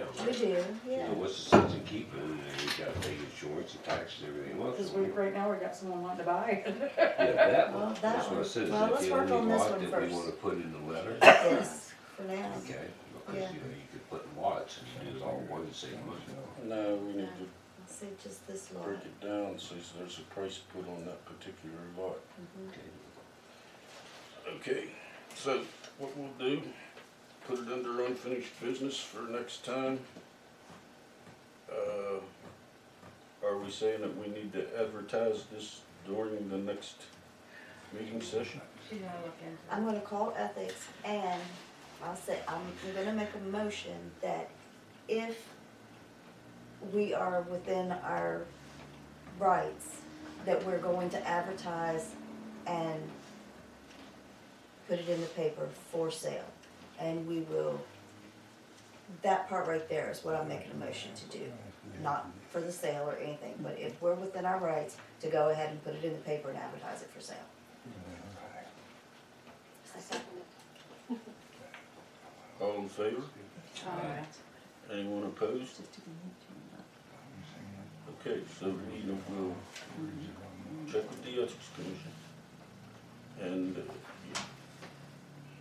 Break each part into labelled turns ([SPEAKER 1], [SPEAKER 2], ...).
[SPEAKER 1] do,
[SPEAKER 2] You know,
[SPEAKER 1] yeah.
[SPEAKER 2] what's the sense in keeping, it? and you gotta pay insurance and taxes and everything else.
[SPEAKER 3] Cause we, right now, we got someone wanting to buy it.
[SPEAKER 2] Yeah, that
[SPEAKER 1] Well,
[SPEAKER 2] one,
[SPEAKER 1] that
[SPEAKER 2] that's what I
[SPEAKER 1] one.
[SPEAKER 2] said, is
[SPEAKER 1] Well,
[SPEAKER 2] that
[SPEAKER 1] let's
[SPEAKER 2] the
[SPEAKER 1] work on
[SPEAKER 2] only
[SPEAKER 1] this
[SPEAKER 2] lot
[SPEAKER 1] one
[SPEAKER 2] that we
[SPEAKER 1] first.
[SPEAKER 2] wanna put in the letter?
[SPEAKER 1] Yes, for now.
[SPEAKER 2] Okay, because,
[SPEAKER 1] Yeah.
[SPEAKER 2] you know, you could put in lots and do it all in one the same month.
[SPEAKER 4] No, we need
[SPEAKER 1] No.
[SPEAKER 4] to
[SPEAKER 1] Let's see, just this lot.
[SPEAKER 4] break it down, see if there's a price put on that particular lot.
[SPEAKER 1] Mhm.
[SPEAKER 2] Okay.
[SPEAKER 4] Okay, so what we'll do, put it under unfinished business for next time. Uh, Are we saying that we need to advertise this during the next meeting session?
[SPEAKER 3] She's gonna look into it.
[SPEAKER 1] I'm gonna call ethics and I'll say, I'm gonna make a motion that if we are within our rights, that we're going to advertise and put it in the paper for sale. And we will, that part right there is what I'm making a motion to do. Not for the sale or anything, but if we're within our rights, to go ahead and put it in the paper and advertise it for sale.
[SPEAKER 4] All in favor?
[SPEAKER 3] Alright.
[SPEAKER 4] Anyone opposed? Okay, so we will check with the ethics commission. And uh, you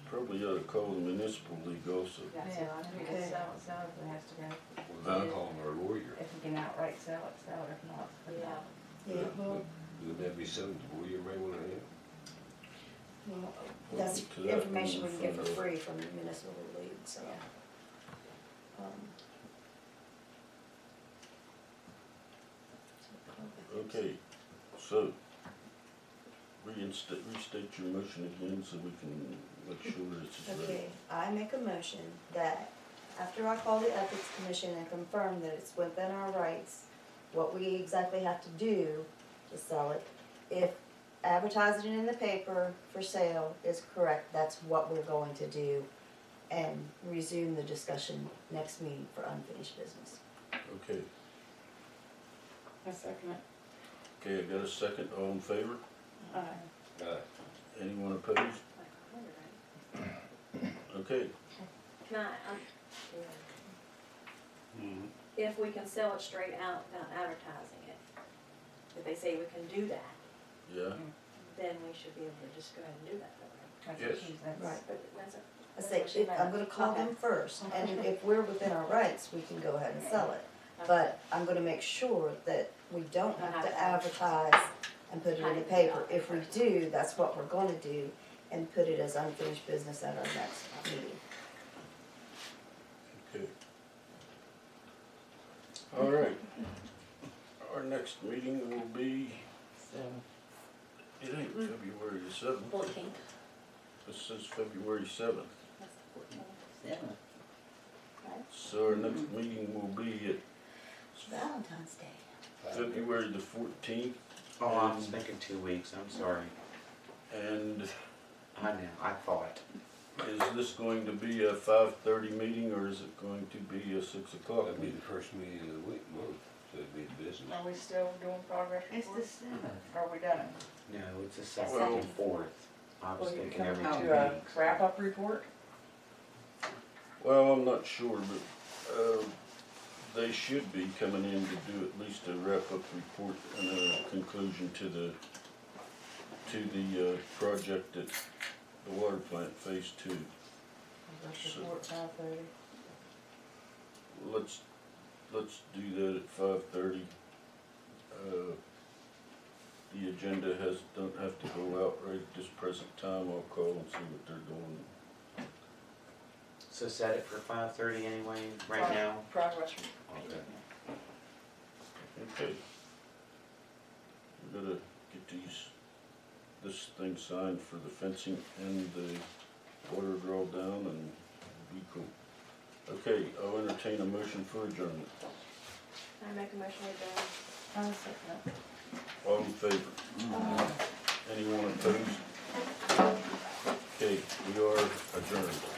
[SPEAKER 4] probably ought to call the municipal league also.
[SPEAKER 3] That's it, I think
[SPEAKER 1] Okay.
[SPEAKER 3] it's sell, it, sell if it has to go.
[SPEAKER 2] Well, then call our lawyer,
[SPEAKER 3] If we can outright sell it, sell it, if not, put it out.
[SPEAKER 1] Yeah, well,
[SPEAKER 2] would that be something the lawyer may wanna have?
[SPEAKER 1] Well, That's
[SPEAKER 4] To that
[SPEAKER 1] information we can get for
[SPEAKER 4] one,
[SPEAKER 1] free from the municipal league, so. um,
[SPEAKER 4] Okay, so reinstate, restate your motion again so we can make sure this is
[SPEAKER 1] Okay,
[SPEAKER 4] right.
[SPEAKER 1] I make a motion that after I call the ethics commission and confirm that it's within our rights, what we exactly have to do to sell it, if advertising it in the paper for sale is correct, that's what we're going to do. And resume the discussion next meeting for unfinished business.
[SPEAKER 4] Okay,
[SPEAKER 3] A second.
[SPEAKER 4] okay, I got a second, all in favor?
[SPEAKER 3] Alright.
[SPEAKER 2] Uh,
[SPEAKER 4] Anyone opposed? Okay,
[SPEAKER 5] Can I, um,
[SPEAKER 2] Mm-hmm.
[SPEAKER 5] if we can sell it straight out without advertising it, if they say we can do that,
[SPEAKER 4] yeah,
[SPEAKER 5] then we should be able to just go ahead and do that, though,
[SPEAKER 3] That's
[SPEAKER 4] Yes.
[SPEAKER 3] what she's, that's,
[SPEAKER 1] Right.
[SPEAKER 5] right? But that's a,
[SPEAKER 1] I say, if, I'm gonna call them first, and if- if we're within our rights, we can go ahead and sell it. But I'm gonna make sure that we don't have to advertise and put it in the paper. If we do, that's what we're gonna do, and put it as unfinished business at our next meeting.
[SPEAKER 4] okay. All right, our next meeting will be, it ain't February the seventh,
[SPEAKER 5] fourteen,
[SPEAKER 4] this is February seventh.
[SPEAKER 5] that's the fourteen.
[SPEAKER 4] So our next meeting will be
[SPEAKER 1] Valentine's Day.
[SPEAKER 4] at February the fourteenth
[SPEAKER 6] Oh, I was thinking two weeks, I'm sorry.
[SPEAKER 4] and
[SPEAKER 6] I know, I thought.
[SPEAKER 4] Is this going to be a five thirty meeting or is it going to be a six o'clock
[SPEAKER 2] That'd be
[SPEAKER 4] meeting?
[SPEAKER 2] the first meeting of the week, month, so it'd be the business.
[SPEAKER 3] are we still doing progress
[SPEAKER 7] It's the
[SPEAKER 3] reports?
[SPEAKER 7] seventh.
[SPEAKER 3] Are we done?
[SPEAKER 6] No, it's the second
[SPEAKER 4] Well-
[SPEAKER 6] and fourth. I was
[SPEAKER 3] Well, you're
[SPEAKER 6] thinking every
[SPEAKER 3] coming
[SPEAKER 6] two
[SPEAKER 3] to a
[SPEAKER 6] weeks.
[SPEAKER 3] Wrap-up report?
[SPEAKER 4] Well, I'm not sure, but, uh, they should be coming in to do at least a wrap-up report and a conclusion to the, to the, uh, project at the water plant phase two.
[SPEAKER 3] Progress
[SPEAKER 4] Sure.
[SPEAKER 3] report, five thirty.
[SPEAKER 4] Let's, let's do that at five thirty. Uh, The agenda has, don't have to go out right at this present time, I'll call and see what they're doing.
[SPEAKER 6] So set it for five thirty anyway, right now?
[SPEAKER 3] Progress report.
[SPEAKER 6] Okay.
[SPEAKER 4] Okay. We gotta get these, this thing signed for the fencing and the water draw down and be cool. Okay, I'll entertain a motion for adjournment.
[SPEAKER 5] I make a motion with the,
[SPEAKER 3] I'll second.
[SPEAKER 4] All in favor? Anyone opposed? Okay, we are adjourned.